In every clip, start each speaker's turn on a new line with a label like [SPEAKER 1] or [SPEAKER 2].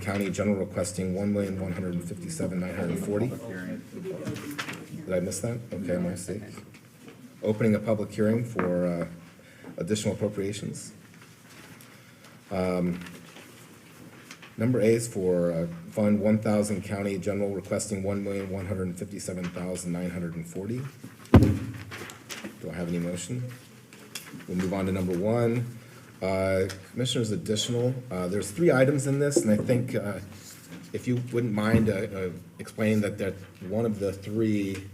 [SPEAKER 1] County General requesting one million, one hundred and fifty-seven, nine hundred and forty. Did I miss that? Okay, my mistake. Opening a public hearing for uh, additional appropriations. Um, Number A is for uh, Fund one thousand County General requesting one million, one hundred and fifty-seven thousand, nine hundred and forty. Do I have any motion? We'll move on to number one. Uh, Commissioners, additional, uh, there's three items in this, and I think uh, if you wouldn't mind uh, uh, explaining that that one of the three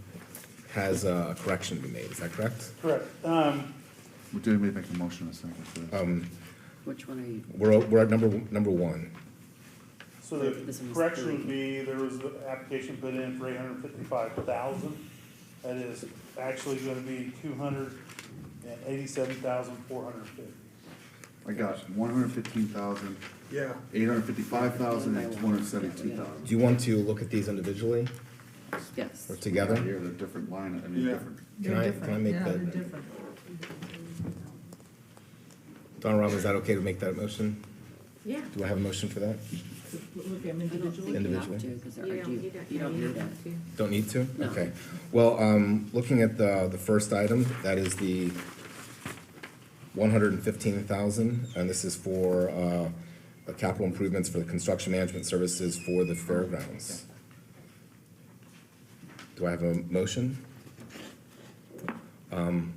[SPEAKER 1] has uh, a correction to be made, is that correct?
[SPEAKER 2] Correct. Um,
[SPEAKER 3] We did make a motion a second for that.
[SPEAKER 1] Um,
[SPEAKER 4] Which one are you?
[SPEAKER 1] We're, we're at number, number one.
[SPEAKER 2] So
[SPEAKER 4] This
[SPEAKER 2] the
[SPEAKER 4] one's
[SPEAKER 2] correction
[SPEAKER 4] thirty.
[SPEAKER 2] would be, there was the application put in for eight hundred fifty-five thousand. That is actually gonna be two hundred and eighty-seven thousand four hundred fifty.
[SPEAKER 3] I got one hundred fifteen thousand,
[SPEAKER 2] Yeah.
[SPEAKER 3] eight hundred fifty-five thousand, and two hundred seventy-two thousand.
[SPEAKER 1] Do you want to look at these individually
[SPEAKER 4] Yes.
[SPEAKER 1] or together?
[SPEAKER 3] Here, they're different line, I mean, different.
[SPEAKER 1] Can I, can I make
[SPEAKER 5] Yeah, they're
[SPEAKER 1] that?
[SPEAKER 5] different.
[SPEAKER 1] Donna Robin, is that okay to make that motion?
[SPEAKER 5] Yeah.
[SPEAKER 1] Do I have a motion for that?
[SPEAKER 5] Look at them
[SPEAKER 4] I don't think
[SPEAKER 5] individually.
[SPEAKER 4] you
[SPEAKER 1] Individual.
[SPEAKER 4] have to, because they're
[SPEAKER 6] You don't
[SPEAKER 4] argue,
[SPEAKER 6] need it.
[SPEAKER 4] you don't need it.
[SPEAKER 1] Don't need to?
[SPEAKER 4] No.
[SPEAKER 1] Okay. Well, um, looking at the, the first item, that is the one hundred and fifteen thousand, and this is for, uh, the capital improvements for the construction management services for the fairgrounds. Do I have a motion? Um,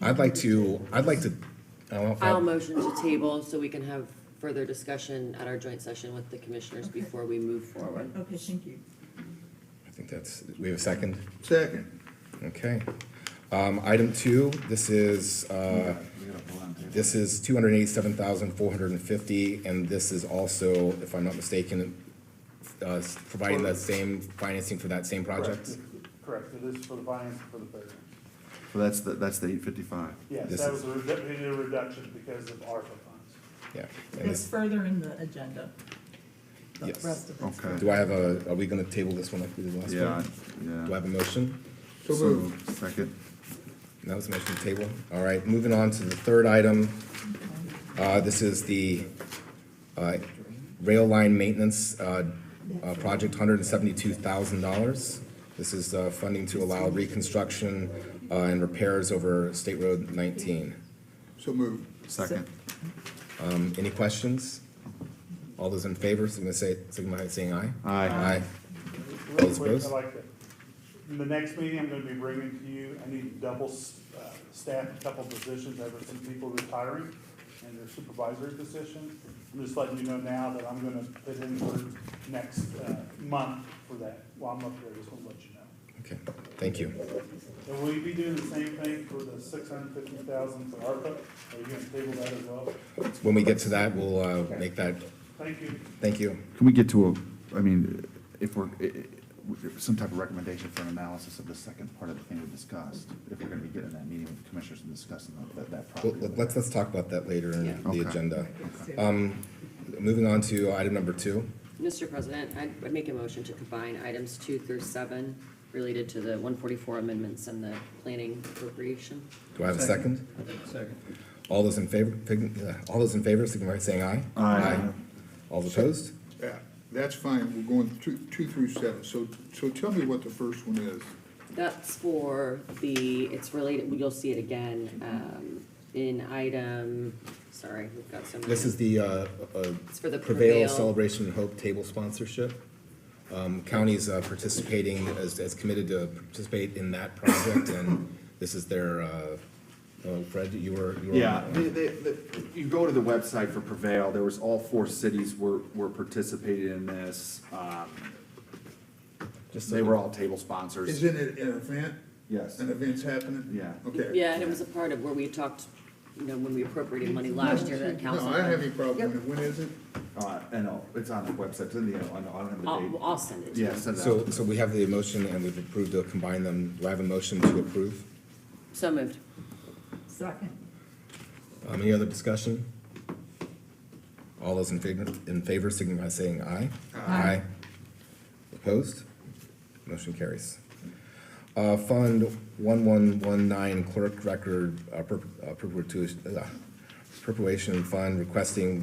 [SPEAKER 1] I'd like to, I'd like to, I don't know if I-
[SPEAKER 6] I'll motion to table so we can have further discussion at our joint session with the commissioners
[SPEAKER 5] Okay.
[SPEAKER 6] before we move forward.
[SPEAKER 5] Okay, thank you.
[SPEAKER 1] I think that's, we have a second?
[SPEAKER 3] Second.
[SPEAKER 1] Okay. Um, item two, this is, uh,
[SPEAKER 3] We got a blind table.
[SPEAKER 1] This is two hundred eighty-seven thousand four hundred and fifty, and this is also, if I'm not mistaken, uh, s- providing that same financing for that same project?
[SPEAKER 2] Correct, it is for the finance for the fairgrounds.
[SPEAKER 3] So that's the, that's the eight fifty-five.
[SPEAKER 2] Yes,
[SPEAKER 1] This
[SPEAKER 2] that
[SPEAKER 1] is-
[SPEAKER 2] was a redu- we did a reduction because of ARPA funds.
[SPEAKER 1] Yeah. And
[SPEAKER 5] It's
[SPEAKER 1] this,
[SPEAKER 5] further in the agenda. The
[SPEAKER 1] Yes.
[SPEAKER 5] rest of it's-
[SPEAKER 3] Okay.
[SPEAKER 1] do I have a, are we gonna table this one like we did last
[SPEAKER 3] Yeah,
[SPEAKER 1] time? Do I
[SPEAKER 3] yeah.
[SPEAKER 1] have a motion?
[SPEAKER 3] So moved. Second.
[SPEAKER 1] That was a motion to table. All right, moving on to the third item. Uh, this is the, uh, rail line maintenance, uh, uh, project, hundred and seventy-two thousand dollars. This is, uh, funding to allow reconstruction, uh, and repairs over State Road nineteen.
[SPEAKER 3] So moved. Second.
[SPEAKER 1] Um, any questions? All those in favor, signify, say- signify by saying aye.
[SPEAKER 3] Aye.
[SPEAKER 1] Aye.
[SPEAKER 2] Real
[SPEAKER 1] Those
[SPEAKER 2] quick,
[SPEAKER 1] opposed?
[SPEAKER 2] I like that. In the next meeting, I'm gonna be bringing to you, I need to double, s- uh, staff a couple positions, I've got some people retiring and their supervisory positions. I'm just letting you know now that I'm gonna put in for next, uh, month for that, while I'm up there, just wanna let you know.
[SPEAKER 1] Okay, thank you.
[SPEAKER 2] And will you be doing the same thing for the six hundred fifty thousand for ARPA? Are you gonna table that as well?
[SPEAKER 1] When we get to that, we'll, uh, make that,
[SPEAKER 2] Thank you.
[SPEAKER 1] thank you.
[SPEAKER 3] Can we get to a, I mean, if we're, i- i- some type of recommendation for an analysis of the second part of the thing we discussed? If we're gonna be getting that meeting with the commissioners and discussing that, that
[SPEAKER 1] Well,
[SPEAKER 3] property.
[SPEAKER 1] let's, let's talk about that later in
[SPEAKER 3] Okay.
[SPEAKER 1] the agenda.
[SPEAKER 5] Okay.
[SPEAKER 1] Um, moving on to item number two.
[SPEAKER 6] Mr. President, I'd I'd make a motion to combine items two through seven related to the one forty-four amendments and the planning appropriation.
[SPEAKER 1] Do I have a second? Second. All those in favor, fig- uh, all those in favor, signify by saying aye.
[SPEAKER 3] Aye.
[SPEAKER 1] All those opposed?
[SPEAKER 7] Yeah, that's fine, we're going two, two through seven, so, so tell me what the first one is.
[SPEAKER 6] That's for the, it's related, you'll see it again,
[SPEAKER 4] Mm-hmm.
[SPEAKER 6] um, in item, sorry, we've got so many.
[SPEAKER 1] This is the, uh, uh,
[SPEAKER 6] It's for the
[SPEAKER 1] Prevail
[SPEAKER 6] Prevail.
[SPEAKER 1] Celebration and Hope Table sponsorship. Um, counties uh, participating, as, as committed to participate in that project, and this is their, uh, oh, Fred, you were, you were.
[SPEAKER 8] Yeah, they, they, the- you go to the website for Prevail, there was all four cities were, were participating in this. um,
[SPEAKER 1] Just
[SPEAKER 8] They were all table sponsors.
[SPEAKER 7] Isn't it an event?
[SPEAKER 8] Yes.
[SPEAKER 7] An event's happening?
[SPEAKER 8] Yeah.
[SPEAKER 7] Okay.
[SPEAKER 6] Yeah, and it was a part of where we talked, you know, when we appropriated money last year that
[SPEAKER 7] No,
[SPEAKER 6] council.
[SPEAKER 7] I don't have any problem with it, when is it?
[SPEAKER 8] Uh, I know, it's on the website, it's in the, I know, I don't have the
[SPEAKER 6] I'll,
[SPEAKER 8] date.
[SPEAKER 6] I'll send it to you.
[SPEAKER 8] Yeah, send
[SPEAKER 1] So,
[SPEAKER 8] that.
[SPEAKER 1] so we have the motion and we've approved to combine them. Do I have a motion to approve?
[SPEAKER 6] So moved.
[SPEAKER 5] Second.
[SPEAKER 1] Um, any other discussion? All those in favor, in favor signify by saying aye.
[SPEAKER 5] Aye.
[SPEAKER 1] Opposed? Motion carries. Uh, Fund one one one nine clerk record, uh, per- uh, perpetua- uh, perpetuation fund requesting